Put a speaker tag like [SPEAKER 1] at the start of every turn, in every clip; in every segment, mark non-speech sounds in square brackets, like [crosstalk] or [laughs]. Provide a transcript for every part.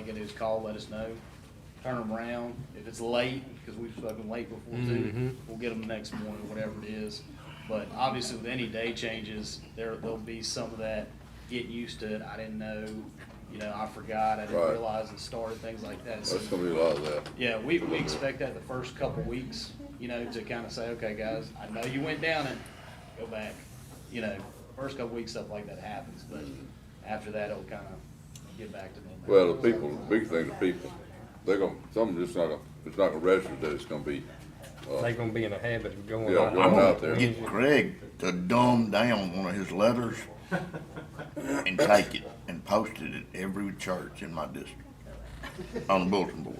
[SPEAKER 1] get his call, let us know, turn them around. If it's late, because we've spoken late before too,
[SPEAKER 2] Mhm.
[SPEAKER 1] we'll get them the next morning, whatever it is. But obviously with any day changes, there, there'll be some of that, get used to it, I didn't know, you know, I forgot, I didn't
[SPEAKER 3] Right.
[SPEAKER 1] realize it started, things like that. So
[SPEAKER 3] That's gonna be a lot of that.
[SPEAKER 1] yeah, we, we expect that the first couple weeks, you know, to kind of say, okay, guys, I know you went down it, go back. You know, first couple weeks, stuff like that happens, but after that, it'll kind of get back to normal.
[SPEAKER 3] Mm-hmm. Well, the people, the big thing, the people, they're gonna, some of them just not, gonna- it's not gonna register that it's gonna be,
[SPEAKER 2] They
[SPEAKER 3] uh,
[SPEAKER 2] gonna be in a habit of going.
[SPEAKER 3] Yeah,
[SPEAKER 2] on.
[SPEAKER 3] going
[SPEAKER 2] I'm
[SPEAKER 3] out there.
[SPEAKER 4] Get Greg to dumb down one of his letters and take it and post it at every church in my district on the bulletin board.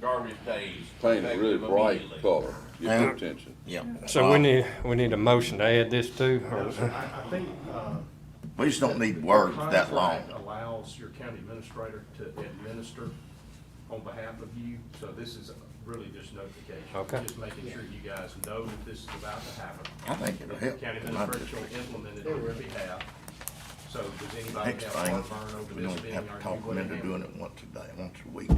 [SPEAKER 5] garbage days.
[SPEAKER 3] paint a really
[SPEAKER 5] effective
[SPEAKER 3] bright
[SPEAKER 5] immediately.
[SPEAKER 3] color, get their
[SPEAKER 4] Yeah.
[SPEAKER 3] attention.
[SPEAKER 4] Yeah.
[SPEAKER 2] So we need, we need a motion to add this too, or
[SPEAKER 6] I, I think, uh.
[SPEAKER 4] We just don't
[SPEAKER 6] the
[SPEAKER 4] need words that long.
[SPEAKER 6] contract Allows your county administrator to administer on behalf of you, so this is really just notification.
[SPEAKER 2] Okay.
[SPEAKER 6] Just making sure you guys know that this is about to happen.
[SPEAKER 4] I think it'll help.
[SPEAKER 6] County
[SPEAKER 4] in my
[SPEAKER 6] administrator
[SPEAKER 4] district.
[SPEAKER 6] will implement it on your behalf. So does anybody
[SPEAKER 4] Next
[SPEAKER 6] have
[SPEAKER 4] thing,
[SPEAKER 6] heartburn over
[SPEAKER 4] we
[SPEAKER 6] this
[SPEAKER 4] don't
[SPEAKER 6] being?
[SPEAKER 4] have
[SPEAKER 6] Are
[SPEAKER 4] to
[SPEAKER 6] you
[SPEAKER 4] talk them
[SPEAKER 6] gonna
[SPEAKER 4] into
[SPEAKER 6] handle
[SPEAKER 4] doing
[SPEAKER 6] it?
[SPEAKER 4] it once a day, once a week.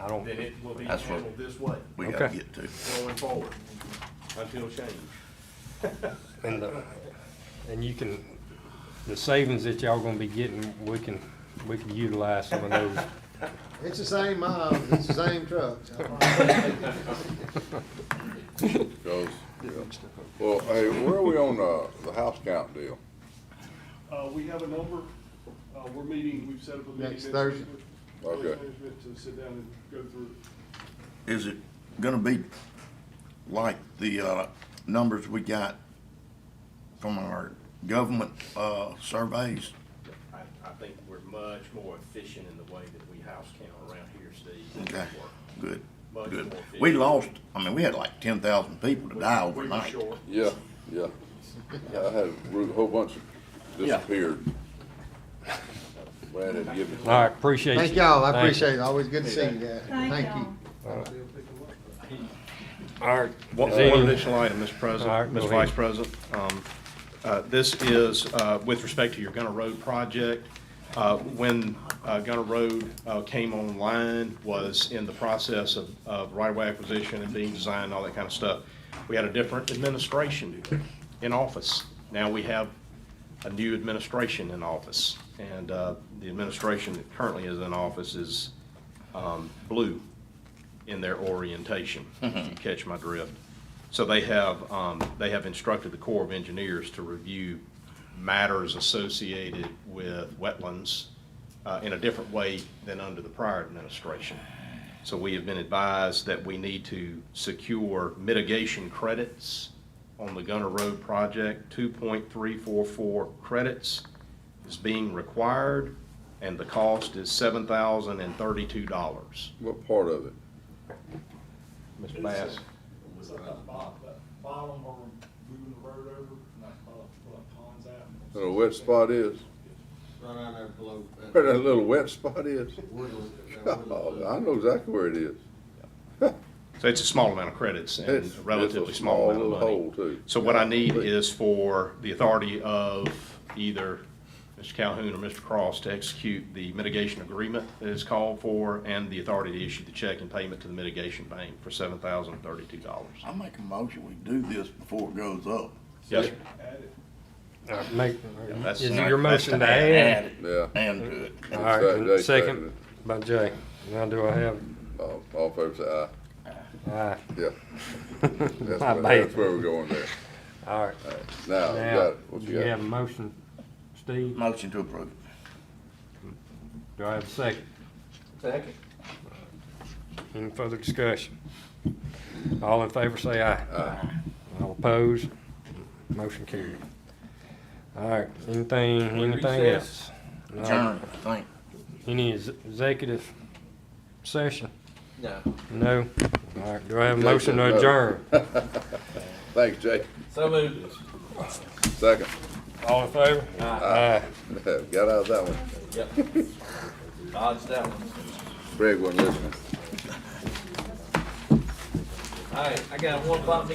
[SPEAKER 2] I don't,
[SPEAKER 6] Then it will be
[SPEAKER 4] That's what-
[SPEAKER 6] handled this way
[SPEAKER 4] We gotta
[SPEAKER 2] Okay.
[SPEAKER 4] get to.
[SPEAKER 6] going forward until changed. [laughs]
[SPEAKER 2] and the, and you can, the savings that y'all gonna be getting, we can, we can utilize some of those.
[SPEAKER 7] It's the same miles, it's the same trucks.
[SPEAKER 3] Goes, yeah. Well, hey, where are we on, uh, the house count deal?
[SPEAKER 8] Uh, we have a number, uh, we're meeting, we've set up a meeting.
[SPEAKER 7] Next Thursday.
[SPEAKER 8] with village
[SPEAKER 3] Okay.
[SPEAKER 8] management To sit down and go through.
[SPEAKER 4] Is it gonna be like the, uh, numbers we got from our government, uh, surveys?
[SPEAKER 6] I, I think we're much more efficient in the way that we house count around here, Steve.
[SPEAKER 4] Okay, good,
[SPEAKER 6] Much
[SPEAKER 4] good.
[SPEAKER 6] more
[SPEAKER 4] We
[SPEAKER 6] efficient.
[SPEAKER 4] lost, I mean, we had like ten thousand people to die
[SPEAKER 6] We were
[SPEAKER 4] overnight.
[SPEAKER 6] short.
[SPEAKER 3] Yeah, yeah. I had a whole bunch disappeared. Brad had given.
[SPEAKER 2] All right, appreciate you.
[SPEAKER 7] Thank y'all, I
[SPEAKER 2] Thank you.
[SPEAKER 7] appreciate it, always good to see you guys,
[SPEAKER 9] Thank
[SPEAKER 7] thank
[SPEAKER 9] y'all.
[SPEAKER 7] you.
[SPEAKER 2] All right.
[SPEAKER 10] One
[SPEAKER 2] Is there
[SPEAKER 10] one
[SPEAKER 2] any-
[SPEAKER 10] additional item, Mr.
[SPEAKER 2] All right,
[SPEAKER 10] President,
[SPEAKER 2] go
[SPEAKER 10] Mr.
[SPEAKER 2] ahead.
[SPEAKER 10] Vice President. Um, uh, This is uh, with respect to your Gunner Road project. Uh, When uh, Gunner Road uh, came online, was in the process of- of right-of-way acquisition and being designed, all that kind of stuff. We had a different administration in office. Now we have a new administration in office. And uh, the administration that currently is in office is um, blue in their orientation, if you catch my drift. So they have, um, they have instructed the Corps of Engineers to review matters associated with wetlands uh, in a different way than under the prior administration. So we have been advised that we need to secure mitigation credits on the Gunner Road project. Two point three four four credits is being required, and the cost is seven thousand and thirty-two dollars.
[SPEAKER 3] What part of it?
[SPEAKER 10] Mr. Bass?
[SPEAKER 8] It's at the bottom, that bottom where we're moving the road over, and that, uh, ponds out.
[SPEAKER 3] That a wet spot is?
[SPEAKER 11] Right out there below. that
[SPEAKER 3] Where that little wet spot is?
[SPEAKER 11] woodland, that woodland.
[SPEAKER 3] [laughs] Oh, I know exactly where it is.
[SPEAKER 10] So it's a small amount of credits and
[SPEAKER 3] It's-
[SPEAKER 10] a
[SPEAKER 3] it's
[SPEAKER 10] relatively
[SPEAKER 3] a
[SPEAKER 10] small amount
[SPEAKER 3] little
[SPEAKER 10] of money.
[SPEAKER 3] Hole too.
[SPEAKER 10] So what I need is for the authority of either Mr. Calhoun or Mr. Cross to execute the mitigation agreement that is called for and the authority to issue the check and payment to the mitigation bank for seven thousand thirty-two dollars.
[SPEAKER 4] I make a motion, we do this before it goes up.
[SPEAKER 10] Yes, sir.
[SPEAKER 2] All right, Make,
[SPEAKER 10] that's-
[SPEAKER 2] is it your
[SPEAKER 4] That's
[SPEAKER 2] motion to add?
[SPEAKER 4] it
[SPEAKER 3] Yeah.
[SPEAKER 4] And uh, to it.
[SPEAKER 2] All
[SPEAKER 3] Second, they
[SPEAKER 2] right,
[SPEAKER 3] seconded
[SPEAKER 2] second by Jay. Now do I have,
[SPEAKER 3] All Oh, all in favor say aye.
[SPEAKER 2] aye.
[SPEAKER 3] Yeah.
[SPEAKER 2] [laughs]
[SPEAKER 3] That's
[SPEAKER 2] My
[SPEAKER 3] where,
[SPEAKER 2] bad.
[SPEAKER 3] that's where we're going there.
[SPEAKER 2] All right.
[SPEAKER 3] Now, you got
[SPEAKER 2] Now,
[SPEAKER 3] it. What
[SPEAKER 2] do
[SPEAKER 3] you
[SPEAKER 2] you
[SPEAKER 3] got?
[SPEAKER 2] have a motion, Steve?
[SPEAKER 4] Motion to approve.
[SPEAKER 2] Do I have a second?
[SPEAKER 5] Second.
[SPEAKER 2] Any further discussion? All in favor, say aye. Aye. All opposed? Motion carried. All right, anything, anything else?
[SPEAKER 5] recess.
[SPEAKER 2] No.
[SPEAKER 4] Adjourn, I think.
[SPEAKER 2] Any ex- executive session?
[SPEAKER 5] No.
[SPEAKER 2] No? All right, do I have a motion to
[SPEAKER 3] Executive,
[SPEAKER 2] adjourn?
[SPEAKER 3] no. Thanks, Jay.
[SPEAKER 5] So moved.
[SPEAKER 3] Second. [laughs]
[SPEAKER 2] All in favor? Aye.
[SPEAKER 3] Got out of that one.
[SPEAKER 5] Yep. Dodged that one.
[SPEAKER 3] Greg wasn't listening.
[SPEAKER 5] All right, I got a one o'clock meeting